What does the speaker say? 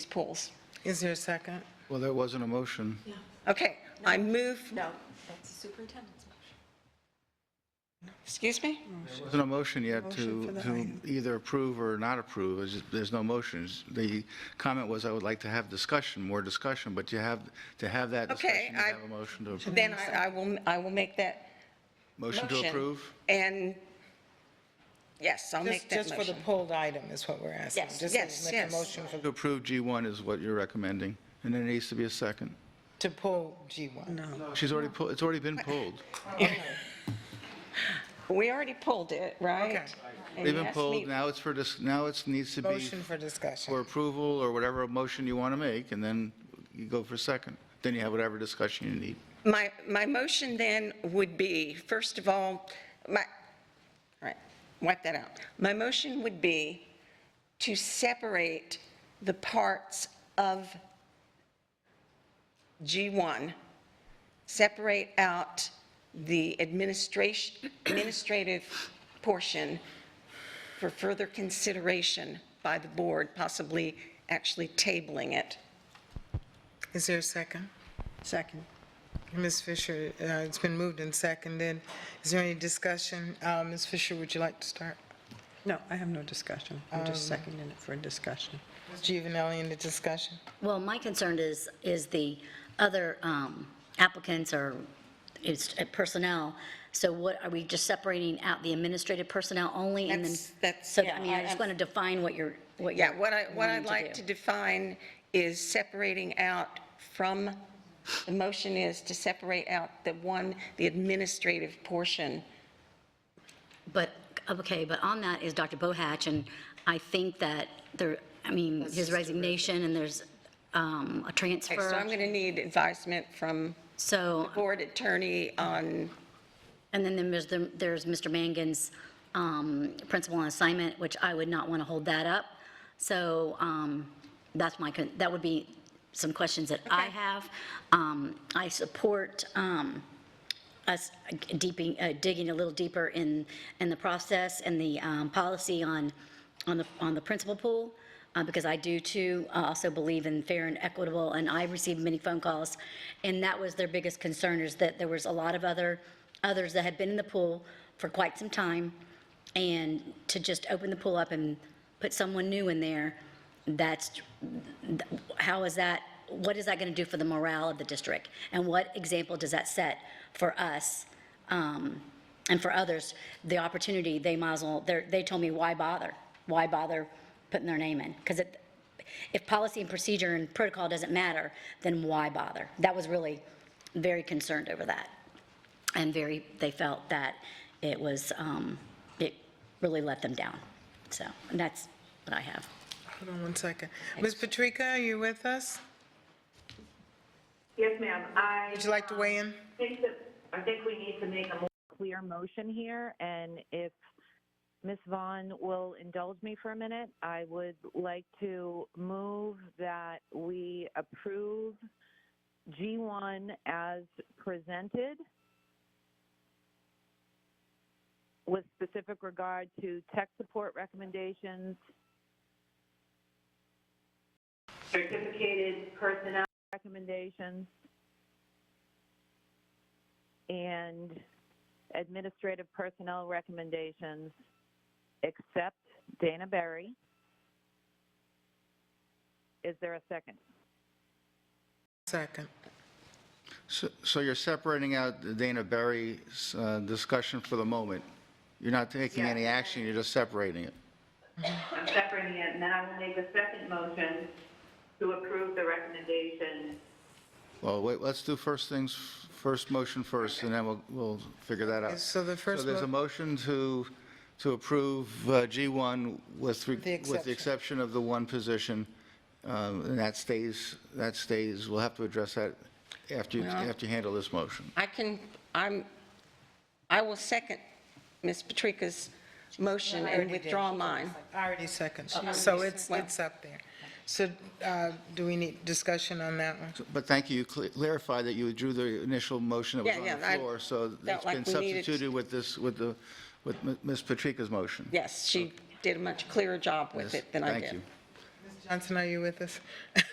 these pools. Is there a second? Well, there wasn't a motion. Okay, I move, No, that's the superintendent's motion. excuse me? There wasn't a motion yet Motion for to, the to item. either approve or not approve. It's just- There's no motions. The comment was, I would like to have discussion, more discussion, but you have, to have that Okay, discussion, you I- have a motion to, Mm. approve. Then I I will, I will make that motion motion. to approve? And, yes, I'll Just, make that just for the motion. pulled item is what we're asking. Yes. Just Yes, make a yes. motion for- To approve G1 is what you're recommending, and there needs to be a second. to pull G1. No. She's already, pu- it's already been pulled. We already pulled it, right? Okay. And They've you been asked pulled, me- now it's for, dis- now it's, needs to be Motion for for discussion. approval or whatever motion you want to make, and then you go for second. Then you have whatever discussion you need. My, my motion then would be, first of all, my, all right, wipe that out. My motion would be to separate the parts of G1, separate out the administration, administrative portion for further consideration by the board, possibly actually tabling it. Is there a second? Second. Ms. Fisher, uh, it's been moved and seconded. Is there any discussion? Uh, Ms. Fisher, would you like to start? No, I have no discussion. I'm just seconding it for a discussion. Ms. Giovanelli in the discussion? Well, my concern is, is the other um, applicants or is uh, personnel, so what, are we just separating out the administrative personnel only and then? That's- that's- So, yeah, I mean, I just want to define what you're, what you're Yeah, what I, what wanting I'd like to do. define is separating out from, the motion is to separate out the one, the administrative portion. But, okay, but on that is Dr. Bohatch, and I think that there, I mean, his resignation and there's um, a Okay, So I'm transfer. going to need advisement from So, board attorney on, and then there's, the- there's Mr. Mangan's um, principal on assignment, which I would not want to hold that up. So um, that's my, con- that would be some questions that I have. Um, I support um, us deeping, uh, digging a little deeper in, in the process and the um, policy on, on the, on the principal pool, uh, because I do too uh, also believe in fair and equitable, and I received many phone calls, and that was their biggest concern, is that there was a lot of other, others that had been in the pool for quite some time, and to just open the pool up and put someone new in there, that's, how is that, what is that going to do for the morale of the district? And what example does that set for us um, and for others? The opportunity, they might as well, they're- they told me, why bother? Why bother putting their name in? Because if policy and procedure and protocol doesn't matter, then why bother? That was really very concerned over that. And very, they felt that it was, um, it really let them down. So and that's what I have. Hold on one second. Ms. Patrica, are you with us? Yes, ma'am. I um, Would you like to weigh in? think that, I think we need to make a more clear motion here, and if Ms. Vaughn will indulge me for a minute, I would like to move that we approve G1 as presented with specific regard to tech support recommendations, certificated personnel. recommendations, and administrative personnel recommendations, except Dana Berry. Is there a second? Second. So so you're separating out the Dana Berry's uh, discussion for the moment. You're not taking any action, you're just separating it. I'm separating it, and then I will make a second motion to approve the recommendation. Well, wait, let's do first things, first motion first, and then we'll, we'll figure that out. So the first So there's a mo- motion to, to approve uh, G1 with, The re- with the exception. exception of the one position, um, and that stays, that stays, we'll have to address that after, you after you handle this motion. I can, I'm, I will second Ms. Patrica's motion and withdraw mine. I already Uh, seconded. So it's, it's up there. So uh, do we need discussion on that one? But thank you, you cl- clarified that you drew the initial motion that was Yeah, on the yeah, I floor, so it's felt like been we needed to- substituted with this, with the, with M- Ms. Patrica's motion. Yes, she did a much clearer job with Yes, it than I did. Thank you. Johnson, are you with us?